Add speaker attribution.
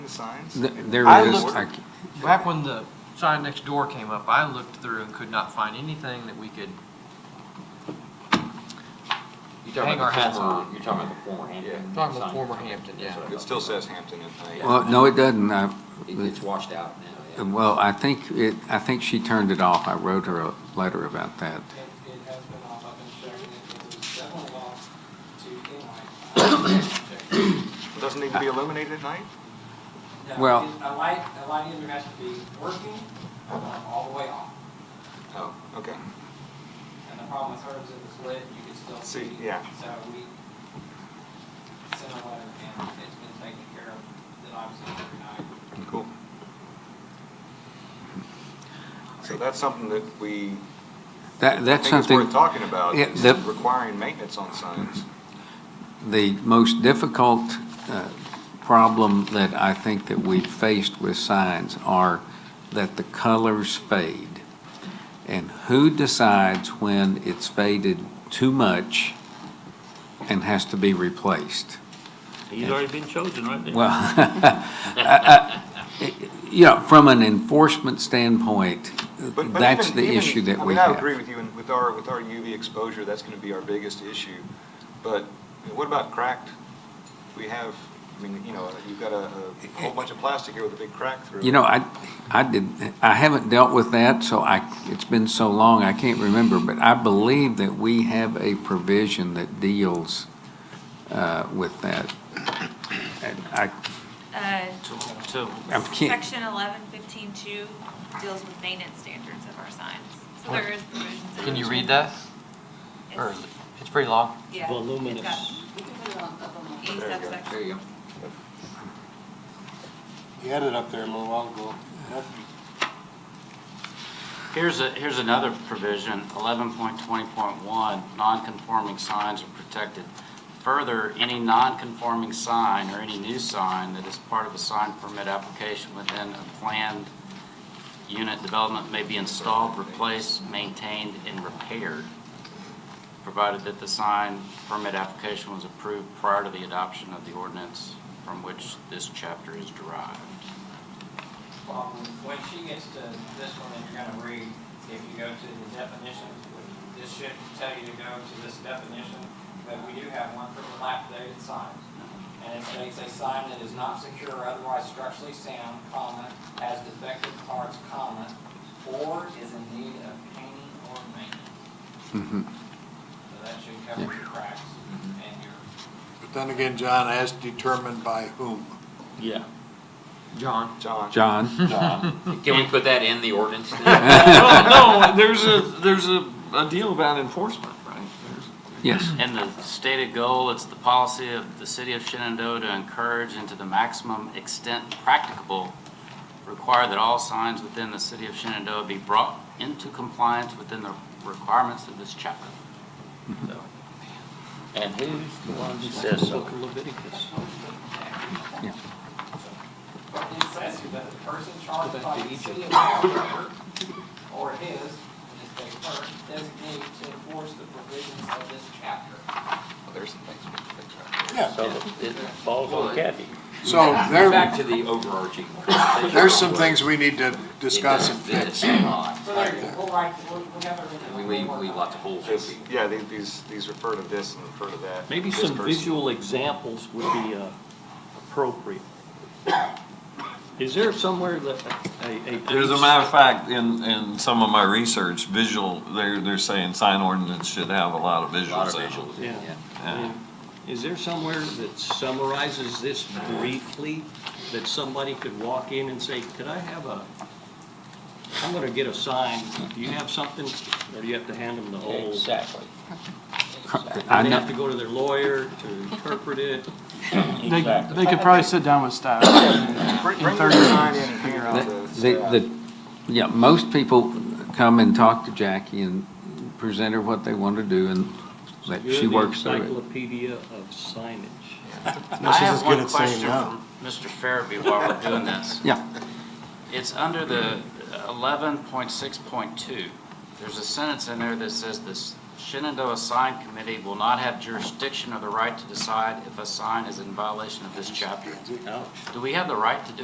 Speaker 1: signs?
Speaker 2: Th- There
Speaker 3: I
Speaker 2: is,
Speaker 3: looked-
Speaker 2: I c-
Speaker 3: Back when the sign next door came up, I looked through and could not find anything that we could,
Speaker 4: You're
Speaker 3: Hang
Speaker 4: talking about
Speaker 3: our
Speaker 4: the
Speaker 3: hats
Speaker 4: former-
Speaker 3: on.
Speaker 4: You're talking about the former Hampton.
Speaker 3: Yeah, talking about
Speaker 4: sign.
Speaker 3: former Hampton, yeah.
Speaker 4: That's what I
Speaker 1: It
Speaker 4: thought.
Speaker 1: still says Hampton at night.
Speaker 2: well, no, it doesn't. I-
Speaker 4: It gets washed out now, yeah.
Speaker 2: Well, I think it, I think she turned it off. I wrote her a letter about that.
Speaker 5: It, it has been off, I've been checking it, it was definitely off to daylight.
Speaker 1: Doesn't need to be illuminated at night?
Speaker 5: No,
Speaker 2: Well-
Speaker 5: it- A light, a light either has to be working or all the way off.
Speaker 1: Oh, okay.
Speaker 5: And the problem with hers, it was lit, you could still
Speaker 1: See,
Speaker 5: see.
Speaker 1: yeah.
Speaker 5: So we sent a letter and it's been taken care of, then obviously every night.
Speaker 1: Cool. So that's something that we,
Speaker 2: That,
Speaker 1: I think
Speaker 2: that's
Speaker 1: it's
Speaker 2: something,
Speaker 1: worth talking about,
Speaker 2: Yeah,
Speaker 1: is
Speaker 2: the-
Speaker 1: requiring maintenance on signs.
Speaker 2: the most difficult uh, problem that I think that we've faced with signs are that the colors fade. And who decides when it's faded too much and has to be replaced?
Speaker 6: He's already been chosen, right there.
Speaker 2: Well, I- I- you know, from an enforcement standpoint,
Speaker 1: But- but
Speaker 2: that's
Speaker 1: even-
Speaker 2: the
Speaker 1: even-
Speaker 2: issue that
Speaker 1: I
Speaker 2: we
Speaker 1: mean,
Speaker 2: have.
Speaker 1: I agree with you, and with our, with our UV exposure, that's gonna be our biggest issue. But what about cracked? We have, I mean, you know, you've got a, a whole bunch of plastic here with a big crack through it.
Speaker 2: You know, I, I did, I haven't dealt with that, so I, it's been so long, I can't remember, but I believe that we have a provision that deals uh, with that. And I,
Speaker 7: Uh,
Speaker 6: So,
Speaker 2: I can't,
Speaker 7: Section eleven fifteen two deals with maintenance standards of our signs. So there is provisions. in
Speaker 3: can you
Speaker 7: it.
Speaker 3: read that? Or,
Speaker 7: It's-
Speaker 3: it's pretty long.
Speaker 7: Yeah.
Speaker 6: Voluminous.
Speaker 7: It's got E
Speaker 1: There you go.
Speaker 7: subsection.
Speaker 4: There you go.
Speaker 8: You had it up there a little while ago. Nothing.
Speaker 6: here's a, here's another provision, eleven point twenty point one, non-conforming signs are protected. Further, any non-conforming sign or any new sign that is part of a sign permit application within a planned unit development may be installed, replaced, maintained, and repaired, provided that the sign permit application was approved prior to the adoption of the ordinance from which this chapter is derived.
Speaker 5: Well, Um, when she gets to this one that you're gonna read, if you go to the definitions, which this should tell you to go to this definition, but we do have one for dilapidated signs. And it states a sign that is not secure or otherwise structurally sound, comma, has defective parts, comma, or is in need of painting or maintenance.
Speaker 2: Mhm.
Speaker 5: So that should cover your cracks and your
Speaker 8: But then again, John, as determined by whom?
Speaker 6: Yeah.
Speaker 3: John?
Speaker 1: John?
Speaker 2: John,
Speaker 4: Can we put that in the ordinance? then?
Speaker 3: No, no, there's a, there's a, a deal about enforcement, right?
Speaker 2: yes,
Speaker 6: And the stated goal, it's the policy of the city of Shenandoah to encourage and to the maximum extent practicable, require that all signs within the city of Shenandoah be brought into compliance within the requirements of this chapter. So,
Speaker 4: And who's the one who
Speaker 6: says so?
Speaker 5: It says here that the person charged by E the city of Albuquerque or his, in this case, her, designate to enforce the provisions of this chapter.
Speaker 1: Well, There's some things we can fix right there.
Speaker 8: Yeah,
Speaker 4: So it falls on Kathy.
Speaker 8: so there,
Speaker 4: Back to the overarching. conversation.
Speaker 8: there's some things we need to discuss and
Speaker 4: It does-
Speaker 8: fix.
Speaker 4: it does not.
Speaker 5: So there you go, we'll write, we'll, we'll have everything.
Speaker 4: We leave, we leave lots of holes.
Speaker 1: Just- Yeah, the- these, these refer to this and refer to that.
Speaker 9: Maybe
Speaker 1: this
Speaker 9: some
Speaker 1: person.
Speaker 9: visual examples would be uh, appropriate. Is there somewhere that a,
Speaker 10: As
Speaker 9: a
Speaker 10: a
Speaker 9: police,
Speaker 10: matter of fact, in, in some of my research, visual, they're, they're saying sign ordinance should have a lot of
Speaker 4: A lot
Speaker 10: visuals
Speaker 4: of
Speaker 10: in it.
Speaker 4: visuals,
Speaker 9: Yeah.
Speaker 4: yeah.
Speaker 10: Yeah.
Speaker 9: is there somewhere that summarizes this briefly? That somebody could walk in and say, could I have a, I'm gonna get a sign, do you have something? Or do you have to hand them the whole?
Speaker 4: Exactly.
Speaker 2: I
Speaker 9: They
Speaker 2: know,
Speaker 9: have to go to their lawyer to interpret it?
Speaker 3: They, they could probably sit down with staff.
Speaker 1: Bring bring the sign in and figure out
Speaker 2: the,
Speaker 1: the.
Speaker 2: the, yeah, most people come and talk to Jackie and present her what they want to do and let, she
Speaker 9: You're the
Speaker 2: works through it.
Speaker 9: Encyclopedia of signage.
Speaker 6: I have one question from Mr. Farabee while we're doing this.
Speaker 2: Yeah.
Speaker 6: It's under the eleven point six point two. There's a sentence in there that says this Shenandoah Sign Committee will not have jurisdiction or the right to decide if a sign is in violation of this chapter. Do we have the right to do